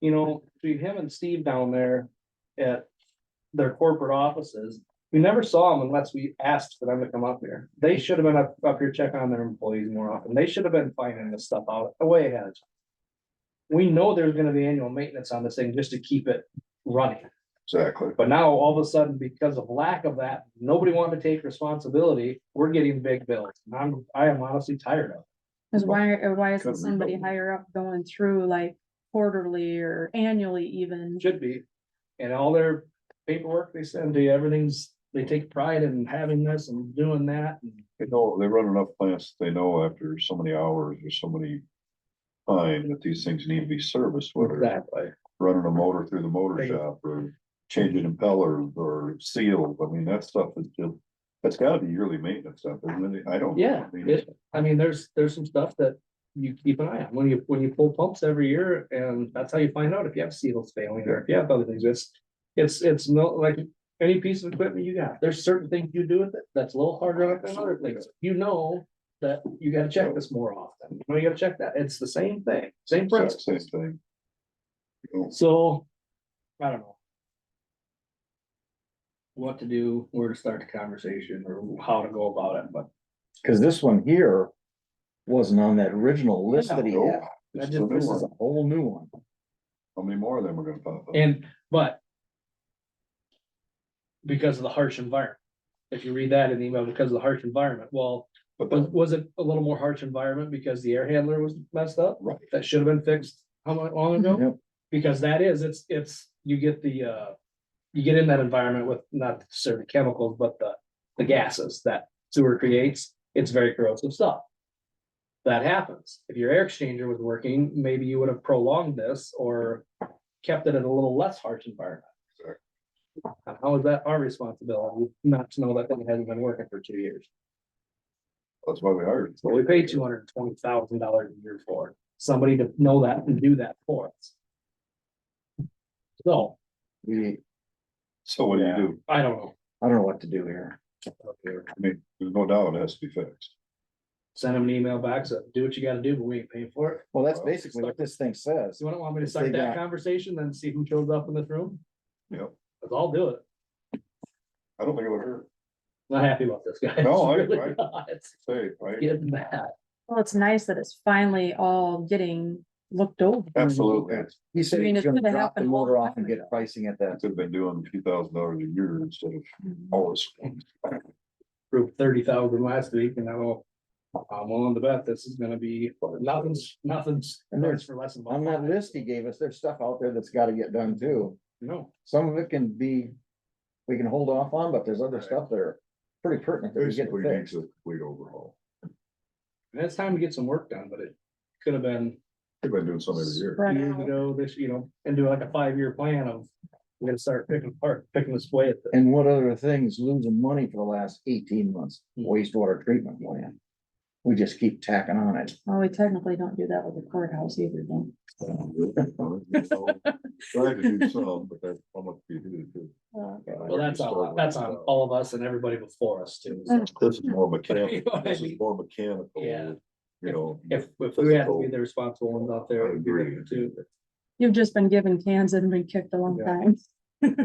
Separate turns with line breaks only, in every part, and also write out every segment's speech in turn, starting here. you know, to him and Steve down there at their corporate offices, we never saw them unless we asked for them to come up here. They should have been up, up here checking on their employees more often. They should have been finding this stuff out way ahead of time. We know there's gonna be annual maintenance on this thing just to keep it running.
Exactly.
But now all of a sudden, because of lack of that, nobody wanted to take responsibility. We're getting big bills. And I'm, I am honestly tired of.
Cause why, uh, why isn't
Couldn't
somebody
rebuild it.
higher up going through like quarterly or annually even?
it. Should be. And all their paperwork they send to you, everything's, they take pride in having this and doing that. and
They know, they run enough plants, that they know after so many hours or so many. Time that these things need to be serviced, whether it's
Exactly.
running a motor through the motor
Right.
shop or changing impellers or seals. I mean, that stuff is just. That's gotta be yearly maintenance stuff, isn't it? I don't.
Yeah,
I mean,
it- I mean, there's, there's some stuff that you keep an eye on when you, when you pull pumps every year and that's how you find out if you have seals failing or if you have other things. It's, it's, it's no, like any piece of equipment you got, there's certain things you do with it that's a little harder than other things. You know that you gotta check this more often. You know, you gotta check that. It's the same thing, same principle.
exact Same thing. You know,
So, I don't know. What to do, where to start the conversation or how to go about it, but
Cause this one here wasn't on that original list that he
No.
had.
I
it's
just-
the new
This is
one.
a whole new one.
How many more of them are gonna pop up?
and, but. Because of the harsh environment. If you read that in the email, because of the harsh environment, well,
But
was,
that-
was it a little more harsh environment because the air handler was messed up?
Right.
That should have been fixed how long, long ago?
Yep.
Because that is, it's, it's, you get the, uh, you get in that environment with not certain chemicals, but the, the gases that sewer creates, it's very corrosive stuff. That happens. If your air exchanger was working, maybe you would have prolonged this or kept it in a little less harsh environment.
Sure.
How is that our responsibility not to know that thing hasn't been working for two years?
That's why we hired.
Well, we paid two hundred and twenty thousand dollars a year for it. somebody to know that and do that for us. So,
We,
So what do you
Yeah.
do?
I don't know.
I don't know what to do here.
I mean, there's no doubt it has to be fixed.
Send them an email back, so do what you gotta do, but we ain't paying for it.
Well, that's
Well,
basically what this thing says.
So you don't want me to
If they
start that
got-
conversation, then see who shows up in this room?
Yep.
Cause I'll do it.
I don't think it would hurt.
Not happy about this guy.
No, I-
Really
I-
not. It's
Say, right?
Getting mad.
Well, it's nice that it's finally all getting looked over.
Absolutely.
He said
I mean,
he's
it
gonna
could've
drop the
happened a long
motor off
time
and get
ago.
pricing at that.
Could have been doing two thousand dollars a year instead of
Mm-hmm.
always.
Proved thirty thousand last week and now I'm willing to bet this is gonna be, nothing's, nothing's,
And there's-
for less than.
On that list he gave us, there's stuff out there that's gotta get done too.
No,
Some of it can be, we can hold off on, but there's other stuff that are pretty pertinent that we get
Basically needs
fixed.
a complete overhaul.
and it's time to get some work done, but it could have been
They've been doing some every year.
Spread
years
out.
ago, this, you know, and do like a five-year plan of, we're gonna start picking apart, picking this way at the.
And what other things losing money for the last eighteen months, wastewater treatment plant. We just keep tacking on it.
Well, we technically don't do that with the courthouse either, though.
Try to do some, but that's how much you do.
Well, that's on, that's on all of us and everybody before us too. so.
Mm.
This is more
You know
mechanical,
what I
this
mean?
is more mechanical,
Yeah.
you know.
If, if we had to be the responsible ones out there, it'd be better too.
You've just been given cans and been kicked a long
Yeah.
time.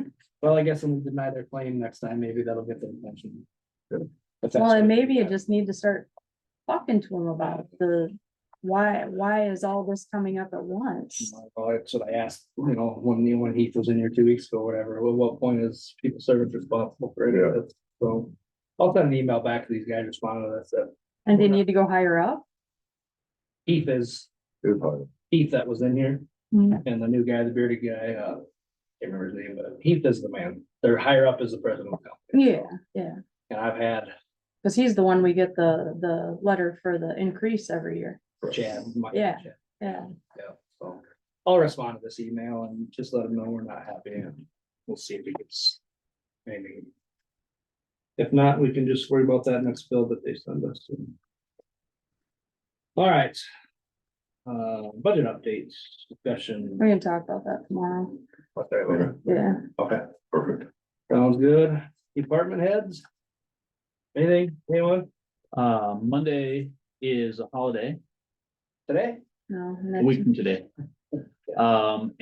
Well, I guess when we deny their claim next time, maybe that'll get their attention. If that's
Well, and
what-
maybe you just need to start talking to them about the, why, why is all this coming up at once?
Well, that's what I asked, you know, when, you- when Heath was in here two weeks ago, whatever, well, what point is people service responsible for any of this? So I'll send an email back to these guys responding to that, that
And they need to go higher up?
Heath is,
Good part.
Heath that was in here.
Hmm.
And the new guy, the bearded guy, uh, can't remember his name, but Heath is the man. They're higher up as the president of the company.
Yeah, yeah,
And I've had
because he's the one we get the, the letter for the increase every year.
Chad. my-
Yeah. Yeah,
Yeah, so I'll respond to this email and just let him know we're not happy and we'll see if he gets maybe. If not, we can just worry about that next bill that they send us. All right. Uh, budget updates, discussion.
we can talk about that tomorrow.
What's that later?
Yeah,
Okay.
Perfect.
Sounds good. Department heads? Anything, anyone
Uh, Monday is a holiday,
today?
no.
a
next
week from today. Um,